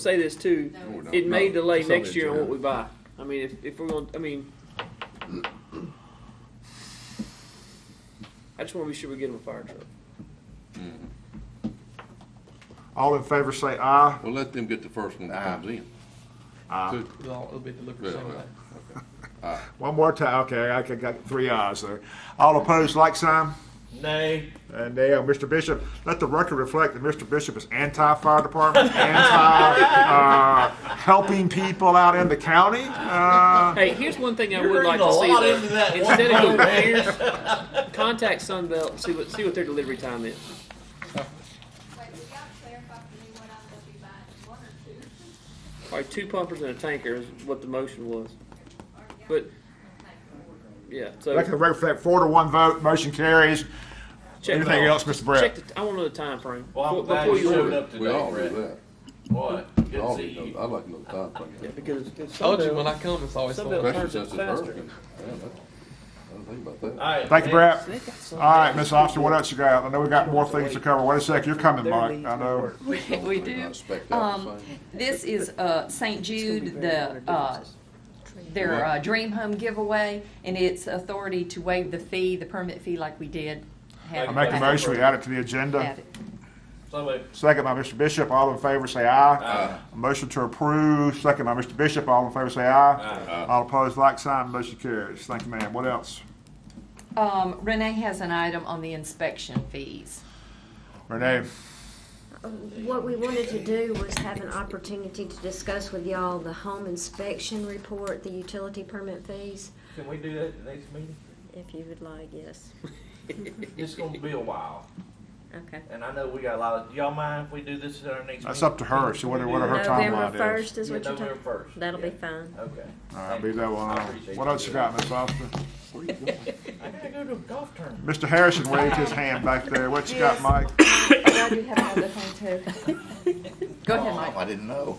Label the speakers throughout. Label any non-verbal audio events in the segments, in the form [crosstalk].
Speaker 1: say this too,
Speaker 2: No, it's-
Speaker 1: it may
Speaker 3: No,
Speaker 1: delay
Speaker 3: it's not
Speaker 1: next year on what
Speaker 3: insurance.
Speaker 1: we buy. I mean, if, if we're gonna, I mean. I just wanna be sure we get them a fire truck.
Speaker 4: All in favor say aye.
Speaker 3: Well, let them get the first one that comes in.
Speaker 5: Uh-huh.
Speaker 4: Aye.
Speaker 3: Good.
Speaker 6: It'll, all- it'll be delivered
Speaker 3: Yeah,
Speaker 6: same
Speaker 3: yeah.
Speaker 6: day.
Speaker 4: One more time. Okay, I got- got three ayes there. All opposed, like sign.
Speaker 6: Nay.
Speaker 4: And they, uh, Mr. Bishop, let the record reflect that Mr. Bishop is anti-fire department, anti, uh, helping people out in the county. Uh,
Speaker 1: Hey, here's one thing I
Speaker 6: You're
Speaker 1: would like
Speaker 6: reading
Speaker 1: to
Speaker 6: a
Speaker 1: see.
Speaker 6: lot
Speaker 1: though.
Speaker 6: into that one
Speaker 1: Instead of
Speaker 6: vote,
Speaker 1: going here, contact Sunbelt, see what, see what their delivery time is.
Speaker 2: Wait, will y'all clarify for me what I'm gonna be buying, one or two?
Speaker 1: Alright, two pumpers and a tanker is what the motion was,
Speaker 2: Or y'all-
Speaker 1: but, yeah, so.
Speaker 4: Let the record reflect four to one vote, motion carries.
Speaker 1: check the-
Speaker 4: Anything else, Mr. Brett?
Speaker 1: Check the, I wanna know the timeframe.
Speaker 7: Well, I'm
Speaker 1: before-
Speaker 7: glad
Speaker 1: before
Speaker 7: you
Speaker 1: order.
Speaker 7: showed up
Speaker 3: We all do
Speaker 7: today,
Speaker 3: that.
Speaker 7: Brett. Boy, good
Speaker 3: We
Speaker 7: to
Speaker 5: Oh,
Speaker 3: all
Speaker 7: see
Speaker 3: do those.
Speaker 7: you.
Speaker 3: I like to know the time frame.
Speaker 1: Yeah, because if- if
Speaker 6: Told you when
Speaker 1: Sunbelt,
Speaker 6: I come, it's always
Speaker 1: Sunbelt-
Speaker 6: fun.
Speaker 3: Especially
Speaker 1: Turns
Speaker 3: since
Speaker 1: it
Speaker 3: it's
Speaker 1: faster.
Speaker 3: hurricane. Yeah, that's- I didn't think about that.
Speaker 7: All right,
Speaker 4: Thank you,
Speaker 7: next-
Speaker 4: Brett. All right, Miss Officer, what else you got? I know we got more things to cover. Wait a sec, you're coming, Mike. I know.
Speaker 3: Please don't
Speaker 8: we
Speaker 3: think I
Speaker 8: do.
Speaker 3: expect that
Speaker 8: Um,
Speaker 3: the same.
Speaker 8: This is uh, St. Jude, the, uh, their uh, Dream Home giveaway, and it's authority to waive the fee, the permit fee like we did. have-
Speaker 4: I make a motion, we add it to the agenda.
Speaker 8: Had it.
Speaker 7: So moved.
Speaker 4: Second by Mr. Bishop, all in favor say aye. A Motion to approve, second by Mr. Bishop, all in favor say aye. All opposed, like sign, motion carries. Thank you, ma'am. What else?
Speaker 8: Um, Renee has an item on the inspection fees.
Speaker 4: Renee?
Speaker 9: What we wanted to do was have an opportunity to discuss with y'all the home inspection report, the utility permit fees,
Speaker 7: Can we do that at the next meeting?
Speaker 9: if you would like, yes.
Speaker 1: [laughs]
Speaker 7: It's gonna be a while,
Speaker 9: Okay.
Speaker 7: and I know we got a lot of, do y'all mind if we do this at our next meeting?
Speaker 4: That's up to her, so what what her
Speaker 9: November
Speaker 4: timeline is.
Speaker 9: first is
Speaker 7: Yeah,
Speaker 9: what you're
Speaker 7: November
Speaker 9: talking,
Speaker 7: first.
Speaker 9: that'll be
Speaker 7: Yeah.
Speaker 9: fine.
Speaker 7: Okay.
Speaker 4: All right, leave that one
Speaker 7: I
Speaker 4: alone.
Speaker 7: appreciate
Speaker 4: What else you got, Ms. Officer?
Speaker 3: Where you going?
Speaker 7: I gotta go to a golf tournament.
Speaker 4: Mr. Harrison waved his hand back there. What you got,
Speaker 8: Yes.
Speaker 4: Mike?
Speaker 8: I do have another thing too. Go ahead, Mike.
Speaker 3: I didn't know.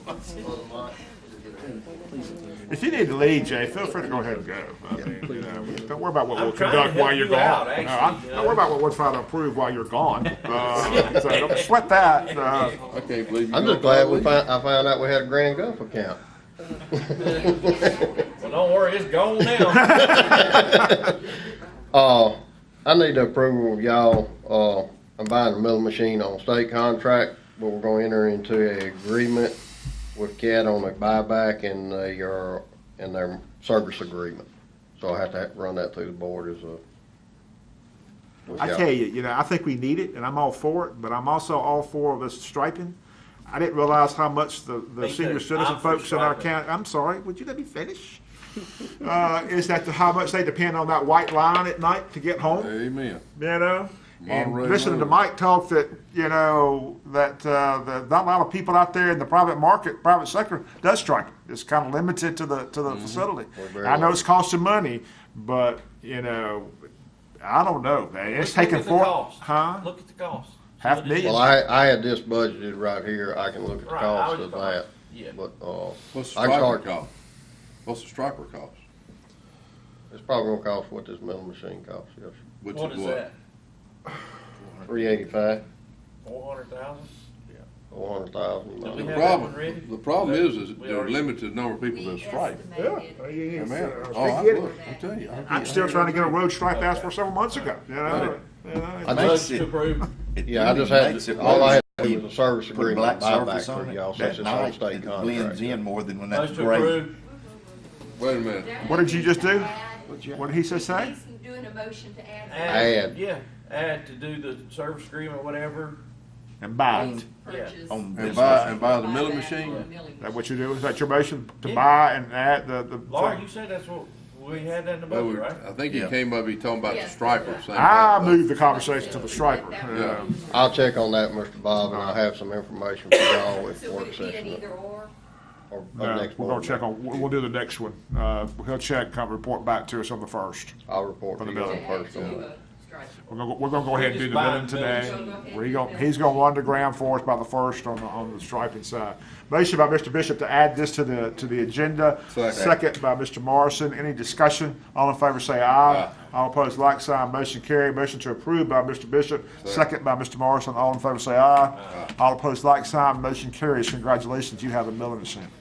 Speaker 4: If you need to leave, Jay, feel free to go ahead and go. I mean, you know, don't worry about what
Speaker 7: I'm
Speaker 4: we'll
Speaker 7: trying to
Speaker 4: conduct
Speaker 7: help
Speaker 4: while you're
Speaker 7: you
Speaker 4: gone.
Speaker 7: out,
Speaker 4: No,
Speaker 7: actually,
Speaker 4: I'm-
Speaker 7: you know.
Speaker 4: Don't worry about what we're trying to approve while you're gone. Uh, So don't sweat that. Uh,
Speaker 3: I can't believe you.
Speaker 5: I'm just glad we found, I found out we had a Grand Gulf account. [laughs]
Speaker 7: Well, don't worry, it's
Speaker 4: [laughs]
Speaker 7: gone now.
Speaker 5: Uh, I need the approval of y'all, uh, I'm buying a milling machine on state contract, but we're gonna enter into an agreement with CAT on a buyback and their, and their service agreement. So I have to run that through the board as a.
Speaker 4: I tell you, you know, I think we need it, and I'm all for it, but I'm also all for this striping. I didn't realize how much the, the
Speaker 7: Me too.
Speaker 4: senior citizen
Speaker 7: I'm for
Speaker 4: folks in our
Speaker 7: striping.
Speaker 4: county, I'm sorry, would you let me finish? [laughs] Uh, is that the- how much they depend on that white line at night to get home?
Speaker 3: Amen.
Speaker 4: you know. And
Speaker 3: Monterey
Speaker 4: listening to
Speaker 3: Road.
Speaker 4: Mike talk that, you know, that, uh, that not a lot of people out there in the private market, private sector does strike. It's kind of limited to the, to the facility.
Speaker 5: Or very
Speaker 4: I know
Speaker 5: low.
Speaker 4: it's costing money, but, you know, I don't know, man. It's
Speaker 7: Look at
Speaker 4: taking
Speaker 7: the
Speaker 4: four,
Speaker 7: cost.
Speaker 4: huh?
Speaker 7: Look at the cost.
Speaker 4: Half
Speaker 7: What it
Speaker 4: million.
Speaker 7: is.
Speaker 5: Well, I, I had this budgeted right here, I can look at the
Speaker 7: Right, I
Speaker 5: cost
Speaker 7: was
Speaker 5: of
Speaker 7: fine.
Speaker 5: that,
Speaker 7: Yeah.
Speaker 5: but, uh,
Speaker 3: What's the
Speaker 5: I can
Speaker 3: striper
Speaker 5: start,
Speaker 3: cost? What's the striper cost?
Speaker 5: it's probably gonna cost what this milling machine costs, yes.
Speaker 3: Which
Speaker 7: What is that?
Speaker 5: Three eighty-five,
Speaker 7: Four hundred thousand?
Speaker 5: four hundred thousand.
Speaker 7: Did we
Speaker 3: The
Speaker 7: have that one ready?
Speaker 3: problem, the problem is, is
Speaker 7: We
Speaker 3: there are
Speaker 7: already-
Speaker 3: limited number of people that strike.
Speaker 4: Yeah.
Speaker 3: Amen. Oh, I,
Speaker 4: Forget it.
Speaker 3: look, I'm telling you. I
Speaker 4: I'm
Speaker 3: get-
Speaker 4: still trying to get a road stripe asked for several months ago, you know? You know,
Speaker 5: I
Speaker 7: Motion
Speaker 5: just,
Speaker 7: to
Speaker 5: [laughs]
Speaker 7: approve.
Speaker 5: yeah, I just had, all I had was a service agreement buyback for y'all, since it's on state contract.
Speaker 10: in more than when
Speaker 7: Motion to approve.
Speaker 3: Wait a minute.
Speaker 4: What did you just do?
Speaker 2: Add-
Speaker 4: What did he say, say?
Speaker 2: He's doing a motion to add.
Speaker 7: Add,
Speaker 5: Add.
Speaker 7: yeah, add to do the service agreement, whatever.
Speaker 4: And buy it.
Speaker 8: Purchase
Speaker 10: On
Speaker 3: And
Speaker 10: this
Speaker 3: buy,
Speaker 10: motion.
Speaker 3: and buy the milling
Speaker 8: buyback on
Speaker 3: machine?
Speaker 8: milling
Speaker 4: Is that what you do? Is that your motion? To
Speaker 7: Yeah.
Speaker 4: buy and add the, the?
Speaker 7: Laura, you said that's what, we had that in the
Speaker 3: That
Speaker 7: budget,
Speaker 3: would-
Speaker 7: right?
Speaker 3: I think he
Speaker 10: Yeah.
Speaker 3: came up, he talking about the
Speaker 2: Yes.
Speaker 3: striper. saying
Speaker 4: Ah, I
Speaker 3: about that.
Speaker 4: moved the conversation to the striper.
Speaker 3: Yeah.
Speaker 5: I'll check on that, Mr. Bob, and I'll have some information for y'all at
Speaker 2: So would
Speaker 5: work
Speaker 2: it be an
Speaker 5: session
Speaker 2: either or?
Speaker 5: or, or
Speaker 4: No,
Speaker 5: next
Speaker 4: we're gonna
Speaker 5: board.
Speaker 4: check
Speaker 5: meeting.
Speaker 4: on, we'll we'll do the next one. Uh, he'll check, come report back to us on the first.
Speaker 5: I'll report
Speaker 4: on
Speaker 5: to
Speaker 4: the
Speaker 5: you on
Speaker 4: bill.
Speaker 5: the
Speaker 2: To add
Speaker 5: first
Speaker 2: to
Speaker 5: one.
Speaker 2: a strike?
Speaker 4: We're gonna, go- we're gonna go ahead and do the
Speaker 7: Just buy
Speaker 4: billing
Speaker 7: the billing.
Speaker 4: today. We go, he's gonna run the ground for us by the first on the, on the striping side. Motion by Mr. Bishop to add this to the, to the agenda.
Speaker 3: Second.
Speaker 4: Second by Mr. Morrison. Any discussion? All in favor say aye.
Speaker 3: Aye.
Speaker 4: All opposed, like sign. Motion carried. Motion to approve by Mr. Bishop, second by Mr. Morrison. All in favor say aye. All opposed, like sign. Motion carries. Congratulations, you have a milling machine.